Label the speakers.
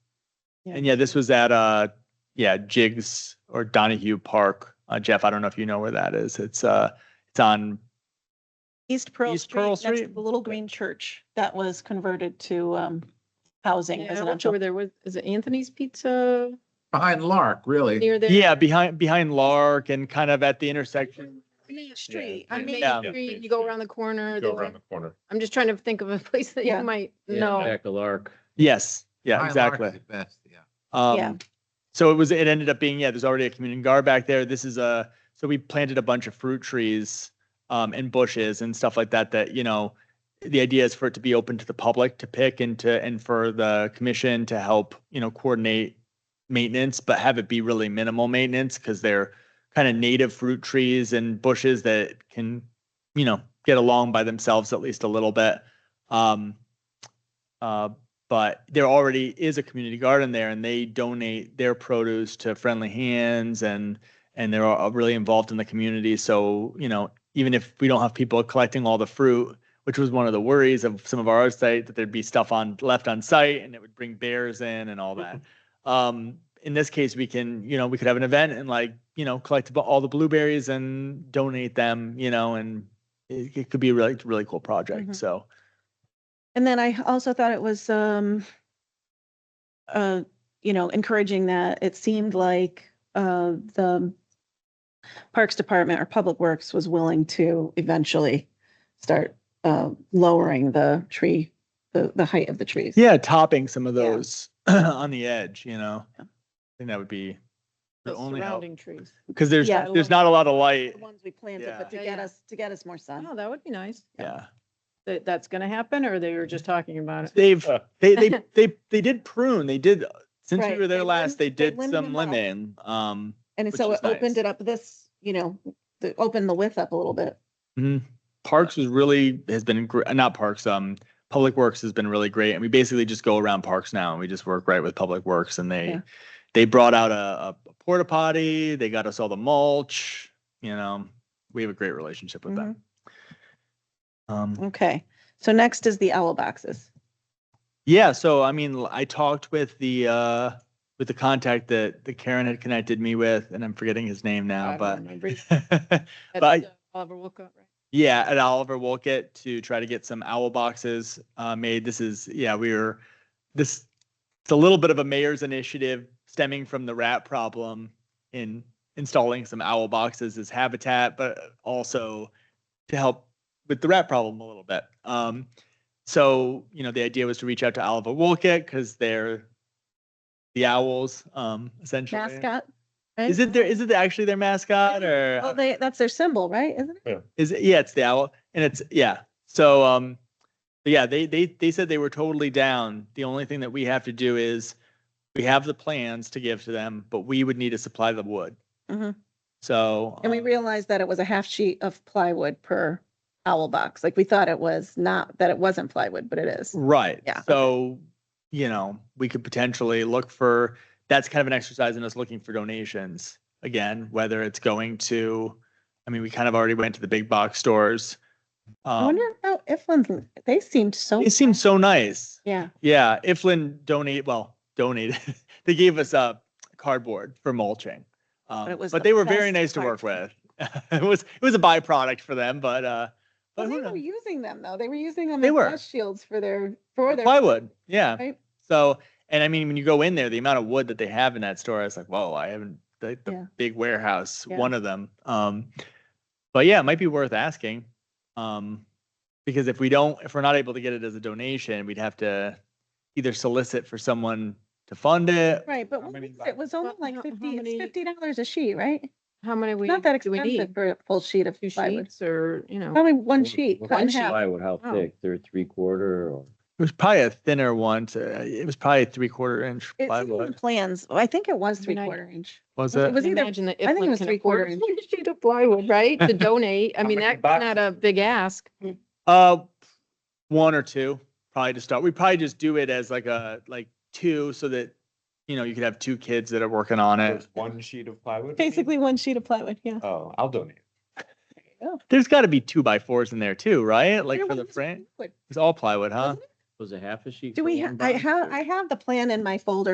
Speaker 1: Yeah.
Speaker 2: And yeah, this was at, uh, yeah, Jigs or Donahue Park. Uh, Jeff, I don't know if you know where that is. It's, uh, it's on,
Speaker 1: East Pearl
Speaker 2: East Pearl
Speaker 1: Street, next to
Speaker 2: Street?
Speaker 1: the little green church that was converted to um housing
Speaker 3: Yeah, I'm not
Speaker 1: residential.
Speaker 3: sure where there was, is it Anthony's Pizza
Speaker 4: Behind Lark, really.
Speaker 3: near there?
Speaker 2: yeah, behind, behind Lark and kind of at the intersection.
Speaker 3: Main
Speaker 1: Street,
Speaker 3: Street, on Main
Speaker 2: Yeah.
Speaker 3: Street, you go around the corner.
Speaker 5: Go
Speaker 3: there's
Speaker 5: around
Speaker 3: a-
Speaker 5: the corner.
Speaker 3: I'm just trying to think of a place that
Speaker 1: Yeah.
Speaker 3: you might know.
Speaker 6: Back to Lark.
Speaker 2: Yes, yeah,
Speaker 4: Behind Lark is
Speaker 2: exactly.
Speaker 4: the Best, yeah.
Speaker 1: Yeah.
Speaker 2: Um, so it was, it ended up being, yeah, there's already a community guard back there. This is a, so we planted a bunch of fruit trees um, and bushes and stuff like that, that, you know, the idea is for it to be open to the public to pick and to, and for the commission to help, you know, coordinate maintenance, but have it be really minimal maintenance because they're kind of native fruit trees and bushes that can, you know, get along by themselves at least a little bit. Um, uh, but there already is a community garden there and they donate their produce to friendly hands and and they're all uh, really involved in the community so you know even if we don't have people collecting all the fruit which was one of the worries of some of our other site that there'd be stuff on left on site and it would bring bears in and all that um in this case we can you know we could have an event and like you know collect about all the blueberries and donate them you know and it, it could be a really really cool project
Speaker 1: Mhm.
Speaker 2: so
Speaker 1: And then I also thought it was um uh, you know, encouraging that it seemed like uh the Parks Department or Public Works was willing to eventually start uh lowering the tree, the the height of the trees.
Speaker 2: Yeah, topping some of
Speaker 1: Yeah.
Speaker 2: those on the edge, you know. I think that would be the
Speaker 3: the
Speaker 2: only help.
Speaker 3: Surrounding trees.
Speaker 2: Because there's,
Speaker 1: Yeah.
Speaker 2: there's not a lot of light.
Speaker 1: The ones we planted,
Speaker 2: Yeah.
Speaker 1: but to
Speaker 3: Yeah,
Speaker 1: get
Speaker 3: yeah.
Speaker 1: us, to get us more sun.
Speaker 3: Oh, that would be nice.
Speaker 2: Yeah.
Speaker 3: That, that's gonna happen or they were just talking about it?
Speaker 2: They've, they, they, they, they did prune. They did, since we
Speaker 1: Right,
Speaker 2: were there
Speaker 1: they
Speaker 2: last,
Speaker 1: lim-
Speaker 2: they
Speaker 1: they
Speaker 2: did
Speaker 1: limmed
Speaker 2: some
Speaker 1: them up.
Speaker 2: lemon. Um,
Speaker 1: And
Speaker 2: which
Speaker 1: so
Speaker 2: is
Speaker 1: it opened
Speaker 2: nice.
Speaker 1: it up this, you know, the, opened the width up a little bit.
Speaker 2: mhm. Parks was really, has been, gr- uh, not Parks, um, Public Works has been really great. And we basically just go around Parks now and we just work right with Public Works and
Speaker 1: Yeah.
Speaker 2: they, they brought out a a porta potty. They got us all the mulch, you know. We have a great relationship with them.
Speaker 3: Mm-hmm.
Speaker 2: Um,
Speaker 1: Okay. So next is the owl boxes.
Speaker 2: Yeah, so I mean, l- I talked with the uh with the contact that that Karen had connected me with, and I'm forgetting his name
Speaker 3: I
Speaker 2: now,
Speaker 3: don't remember.
Speaker 2: but
Speaker 3: That's,
Speaker 2: Bye.
Speaker 3: uh, Oliver Wolcott, right?
Speaker 2: yeah, at Oliver Wolkett to try to get some owl boxes uh made. This is yeah, we were this it's a little bit of a mayor's initiative stemming from the rat problem in installing some owl boxes as habitat, but also to help with the rat problem a little bit. Um, so you know the idea was to reach out to Oliver Wolkett because they're the owls, um, essentially.
Speaker 1: Mascot.
Speaker 2: Is it their is it actually their mascot or
Speaker 1: Well, they, that's their symbol, right? Isn't it?
Speaker 2: is it, yeah, it's the owl, and it's yeah. So um, yeah, they they they said they were totally down. The only thing that we have to do is we have the plans to give to them, but we would need to supply the wood.
Speaker 1: Mhm.
Speaker 2: So
Speaker 1: And we
Speaker 2: um,
Speaker 1: realized that it was a half sheet of plywood per owl box. Like we thought it was not, that it wasn't plywood, but it is.
Speaker 2: Right.
Speaker 1: Yeah, okay.
Speaker 2: So, you know, we could potentially look for, that's kind of an exercise in us looking for donations. Again, whether it's going to, I mean, we kind of already went to the big box stores.
Speaker 1: I
Speaker 2: Um,
Speaker 1: wonder how Iflin's, they seemed so.
Speaker 2: it seems so nice.
Speaker 1: Yeah.
Speaker 2: Yeah. Iflin donate, well, donated, they gave us uh, cardboard for mulching. Um,
Speaker 1: it was
Speaker 2: but
Speaker 1: the
Speaker 2: they were very
Speaker 1: best
Speaker 2: nice to work
Speaker 1: cardboard.
Speaker 2: with. It was, it was a byproduct for them, but, uh, but
Speaker 1: Well,
Speaker 2: who
Speaker 1: They were
Speaker 2: knows?
Speaker 1: using them though. They were using them
Speaker 2: They
Speaker 1: as
Speaker 2: were.
Speaker 1: dust shields for their, for their.
Speaker 2: plywood. Yeah.
Speaker 1: Right?
Speaker 2: So, and I mean, when you go in there, the amount of wood that they have in that store, it's like, whoa, I haven't, the, the
Speaker 1: Yeah.
Speaker 2: big warehouse,
Speaker 1: Yeah.
Speaker 2: one of them. Um, but yeah, it might be worth asking. Um, because if we don't, if we're not able to get it as a donation, we'd have to either solicit for someone to fund it.
Speaker 1: Right, but
Speaker 2: How
Speaker 1: what
Speaker 2: many
Speaker 1: was it It was only
Speaker 3: Well,
Speaker 1: like
Speaker 3: how- how
Speaker 1: fifty, it's
Speaker 3: many-
Speaker 1: fifty dollars a sheet, right?
Speaker 3: How many we,
Speaker 1: Not that
Speaker 3: do we
Speaker 1: expensive
Speaker 3: need?
Speaker 1: for a full sheet of
Speaker 3: Two
Speaker 1: plywood.
Speaker 3: sheets or, you know?
Speaker 1: Probably one sheet, cut in
Speaker 3: One sheet.
Speaker 1: half.
Speaker 6: Plywood, how
Speaker 3: Oh.
Speaker 6: thick? They're three quarter or?
Speaker 2: It was probably a thinner one. To, it was probably three quarter inch
Speaker 1: It's in the
Speaker 2: plywood.
Speaker 1: plans. I think it was
Speaker 3: I
Speaker 1: three
Speaker 3: mean, I-
Speaker 1: quarter inch.
Speaker 2: Was
Speaker 1: it
Speaker 2: it?
Speaker 1: was
Speaker 3: Can you
Speaker 1: either-
Speaker 3: Imagine that
Speaker 1: I think it
Speaker 3: Iflin
Speaker 1: was
Speaker 3: can
Speaker 1: three-quarter
Speaker 3: afford a sheet of plywood, right? To donate. I
Speaker 5: How
Speaker 3: mean,
Speaker 5: many
Speaker 3: that's not a
Speaker 5: boxes?
Speaker 3: big ask.
Speaker 2: Uh, one or two, probably to start. We probably just do it as like a like two, so that you know you could have two kids that are working on it.
Speaker 5: There's one sheet of plywood. you mean?
Speaker 1: Basically one sheet of plywood, yeah.
Speaker 5: Oh, I'll donate.
Speaker 2: There's got to be two by fours in there too, right? Like
Speaker 1: There
Speaker 2: for the
Speaker 1: was
Speaker 2: frame,
Speaker 1: plywood.
Speaker 2: it's all plywood, huh?
Speaker 6: Was it half a sheet?
Speaker 1: Do
Speaker 6: for
Speaker 1: we, ha-
Speaker 6: one
Speaker 1: I
Speaker 6: box
Speaker 1: have,
Speaker 6: or-
Speaker 1: I have the plan in my folder